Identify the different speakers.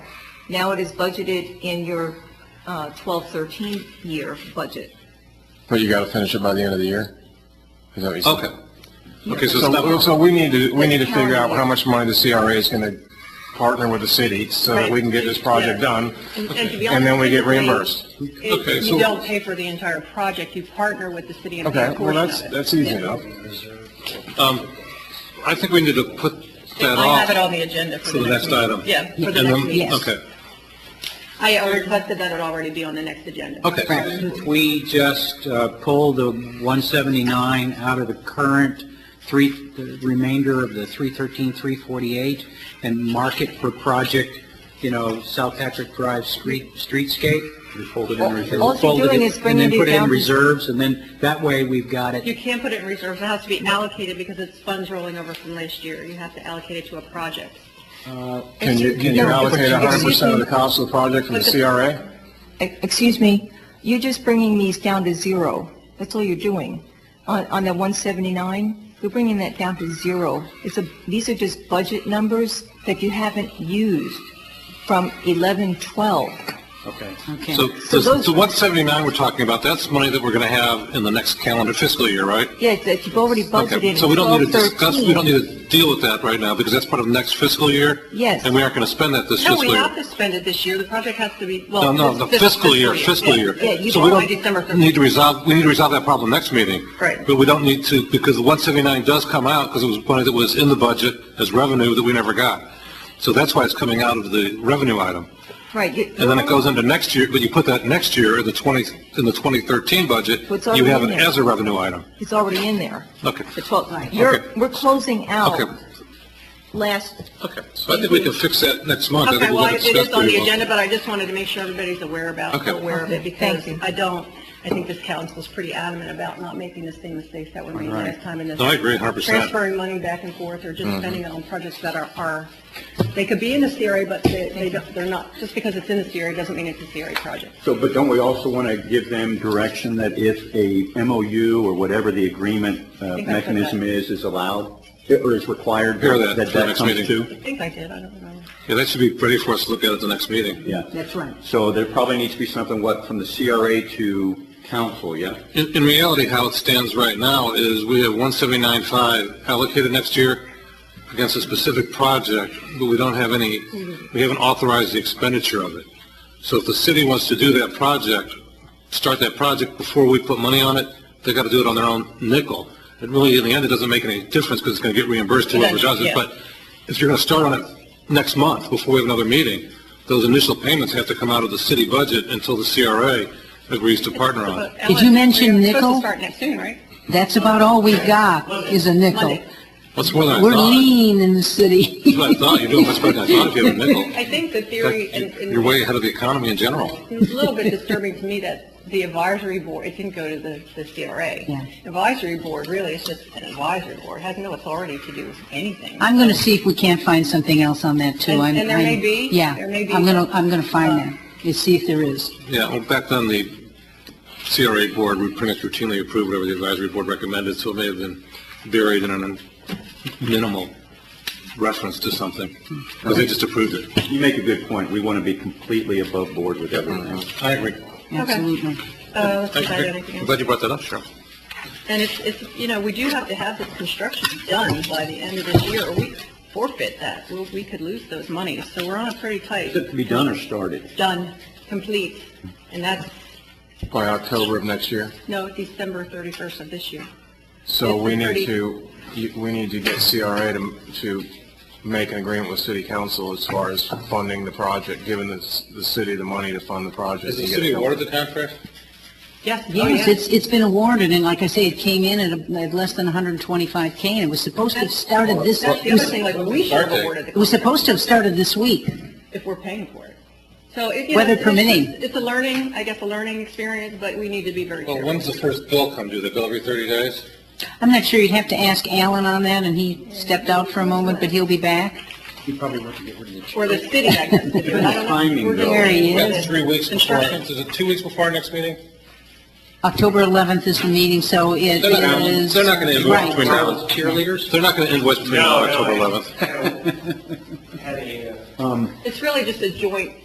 Speaker 1: Now it is budgeted in your uh, 12, 13 year budget.
Speaker 2: But you gotta finish it by the end of the year? Is that what you said?
Speaker 3: Okay. Okay, so it's
Speaker 2: So,
Speaker 3: not,
Speaker 2: so we need to, we need to figure out how much money the CRA is gonna partner with the city so that we can get this project done, and then we get reimbursed.
Speaker 3: Okay,
Speaker 4: If
Speaker 3: so-
Speaker 4: you don't pay for the entire project, you partner with the city and pay
Speaker 2: Okay,
Speaker 4: a
Speaker 2: well,
Speaker 4: portion
Speaker 2: that's,
Speaker 4: of it.
Speaker 2: that's easy enough.
Speaker 3: Um, I think we need to put that
Speaker 4: I have it
Speaker 3: off
Speaker 4: on the agenda for
Speaker 3: for
Speaker 4: the next meeting.
Speaker 3: item.
Speaker 4: Yeah, for
Speaker 3: And
Speaker 4: the
Speaker 3: then-
Speaker 4: next meeting.
Speaker 3: Okay,
Speaker 4: I uh, requested that it already be on the next agenda. Um,
Speaker 3: okay.
Speaker 5: We just uh, pulled the 179 out of the current three, the remainder of the 313, 348, and mark it for project, you know, South Patrick Drive street, streetscape. We folded
Speaker 1: in All- reserves. all you're doing is bringing it
Speaker 5: And then put it
Speaker 1: down
Speaker 5: in
Speaker 1: to-
Speaker 5: reserves, and then that way we've got it.
Speaker 4: You can't put it in reserves, it has to be allocated because it's funds rolling over from last year. You have to allocate it to a project.
Speaker 2: Can you, can you
Speaker 1: No,
Speaker 2: allocate
Speaker 1: excuse me.
Speaker 2: hundred percent of the cost of the project from the CRA?
Speaker 1: E- Excuse me, you're just bringing these down to zero. That's all you're doing. On, on the 179, you're bringing that down to zero. It's a, these are just budget numbers that you haven't used from 11, 12.
Speaker 5: Okay.
Speaker 3: So,
Speaker 1: So
Speaker 3: so
Speaker 1: those-
Speaker 3: so 179 we're talking about, that's money that we're going to have in the next calendar fiscal year, right?
Speaker 1: Yeah, that you've already budgeted
Speaker 3: Okay,
Speaker 1: in
Speaker 3: so we don't
Speaker 1: 12,
Speaker 3: need to discuss, we don't
Speaker 1: 13.
Speaker 3: need to deal with that right now, because that's part of next fiscal year?
Speaker 1: Yes.
Speaker 3: And we aren't going to spend that this
Speaker 4: No,
Speaker 3: fiscal
Speaker 4: we have
Speaker 3: year?
Speaker 4: to spend it this year, the project has to be,
Speaker 3: No,
Speaker 4: well.
Speaker 3: no, the
Speaker 4: this
Speaker 3: fiscal year, fiscal year.
Speaker 4: Yeah, you
Speaker 3: So we
Speaker 4: don't by
Speaker 3: don't
Speaker 4: December 31st.
Speaker 3: Need to resolve, we need to resolve that problem next meeting.
Speaker 4: Right.
Speaker 3: But we don't need to, because the 179 does come out, because it was money that was in the budget as revenue that we never got. So that's why it's coming out of the revenue item.
Speaker 1: Right. you-
Speaker 3: And then it goes into next year, but you put that next year in the 20, in the 2013 budget,
Speaker 1: What's
Speaker 3: you
Speaker 1: already
Speaker 3: have it
Speaker 1: in there.
Speaker 3: as a revenue item.
Speaker 1: It's already in there.
Speaker 3: Okay.
Speaker 1: The 12, you're,
Speaker 3: Okay.
Speaker 1: we're closing out
Speaker 3: Okay.
Speaker 1: last,
Speaker 3: Okay, so I think we can fix that next month. I
Speaker 4: Okay,
Speaker 3: think we're
Speaker 4: well,
Speaker 3: going
Speaker 4: it
Speaker 3: to discuss
Speaker 4: is on the
Speaker 3: pretty well.
Speaker 4: agenda, but I just wanted to make sure everybody's aware about,
Speaker 3: Okay.
Speaker 4: aware of it,
Speaker 1: Okay,
Speaker 4: because
Speaker 1: thank you.
Speaker 4: I don't, I think this council's pretty adamant about not making the same mistakes that were made last time in this.
Speaker 3: No, I agree Mm-hmm. 100%.
Speaker 4: Transferring money back and forth, or just spending it on projects that are, are, they could be in the CRA, but they, they don't, they're not, just because it's in the CRA doesn't mean it's a CRA project.
Speaker 6: So, but don't we also want to give them direction that if a MOU or whatever the agreement uh,
Speaker 4: think I said
Speaker 6: mechanism
Speaker 4: that.
Speaker 6: is, is allowed or is required?
Speaker 3: Hear that for the
Speaker 6: that
Speaker 3: next
Speaker 6: comes
Speaker 3: meeting.
Speaker 4: I
Speaker 6: to?
Speaker 4: think I did, I don't remember.
Speaker 3: Yeah, that should be ready for us to look at at the next meeting.
Speaker 6: Yeah.
Speaker 5: That's right.
Speaker 6: So there probably needs to be something, what, from the CRA to council, yeah?
Speaker 3: In, in reality, how it stands right now is we have 179.5 allocated next year against a specific project, but we don't have any, we haven't authorized the expenditure of it. So if the city wants to do that project, start that project before we put money on it, they got to do it on their own nickel. It really, in the end, it doesn't make any difference because it's going to get reimbursed to whoever does it.
Speaker 4: Yeah.
Speaker 3: But if you're going to start on it next month before we have another meeting, those initial payments have to come out of the city budget until the CRA agrees to partner on it.
Speaker 4: Ellen,
Speaker 7: you mention
Speaker 4: we're Supposed
Speaker 7: nickel?
Speaker 4: to start next soon, right?
Speaker 7: That's about all we got is a nickel.
Speaker 4: Monday.
Speaker 3: That's more than I
Speaker 7: We're
Speaker 3: thought.
Speaker 7: lean in the city.
Speaker 3: That's what I thought. You're doing much better than I thought if you have a nickel.
Speaker 4: I think the theory and.
Speaker 3: That- You're way ahead of the economy in general.
Speaker 4: It's a little bit disturbing to me that the advisory board, it didn't go to the, the CRA.
Speaker 7: Yeah.
Speaker 4: Advisory board really is just an advisory board, has no authority to do anything.
Speaker 7: I'm going to see if we can't find something else on that too.
Speaker 4: And-
Speaker 7: I'm-
Speaker 4: and there may
Speaker 7: I'm-
Speaker 4: be-
Speaker 7: Yeah,
Speaker 4: there may be Uh,
Speaker 7: I'm going to, I'm going to find
Speaker 4: some,
Speaker 7: that and see if there is.
Speaker 3: Yeah, well, back then, the CRA board would pretty much routinely approve whatever the advisory board recommended, so it may have been buried in a minimal reference to something, because they just approved it.
Speaker 6: You make a good point. We want to be completely above board with everything.
Speaker 3: I agree.
Speaker 7: Absolutely.
Speaker 4: Uh, let's
Speaker 3: Thank
Speaker 4: decide on
Speaker 3: you.
Speaker 4: anything
Speaker 3: I'm
Speaker 4: else.
Speaker 3: glad you brought that up, Cheryl.
Speaker 4: And it's, it's, you know, we do have to have this construction done by the end of this year, or we forfeit that. We, we could lose those monies, so we're on a pretty tight,
Speaker 6: Is it to be done or started?
Speaker 4: done, complete, and that's,
Speaker 2: By October of next year.
Speaker 4: no, December thirty-first of this year.
Speaker 2: So
Speaker 4: Yes,
Speaker 2: we
Speaker 4: it's
Speaker 2: need
Speaker 4: already-
Speaker 2: to, you- we need to get CRA to, to make an agreement with city council as far as funding the project, giving the, s- the city the money to fund the project.
Speaker 3: Is the
Speaker 2: and get
Speaker 3: city
Speaker 2: it going.
Speaker 3: awarded the contract?
Speaker 4: Yes, oh,
Speaker 7: Yes,
Speaker 4: yeah.
Speaker 7: it's, it's been awarded, and like I say, it came in at, a- at less than 125K, and it was supposed to have started this,
Speaker 4: That's the
Speaker 7: it
Speaker 4: other
Speaker 7: was-
Speaker 4: thing, like, we should have awarded the
Speaker 7: it was supposed to have started this week.
Speaker 4: if we're paying for it. So it, you
Speaker 7: Weather
Speaker 4: know, it's-
Speaker 7: permitting.
Speaker 4: It's a learning, I guess, a learning experience, but we need to be very
Speaker 3: Well,
Speaker 4: careful.
Speaker 3: when's the first bill come due? The bill every 30 days?
Speaker 7: I'm not sure, you'd have to ask Alan on that, and he stepped out for a moment, but he'll be back.
Speaker 4: Or the city, I guess. to do it. I don't know.
Speaker 6: Timing,
Speaker 4: We're
Speaker 6: though.
Speaker 4: gonna-
Speaker 7: There he
Speaker 3: About
Speaker 7: is.
Speaker 3: three weeks before,
Speaker 4: Construction.
Speaker 3: is it two weeks before our next meeting?
Speaker 7: October 11th is the meeting, so it
Speaker 3: They're not, gonna-
Speaker 7: is...
Speaker 3: they're not gonna invoice
Speaker 7: Right.
Speaker 3: between now and. Cheerleaders? They're not gonna invoice between now and October eleventh.
Speaker 4: It's really just a joint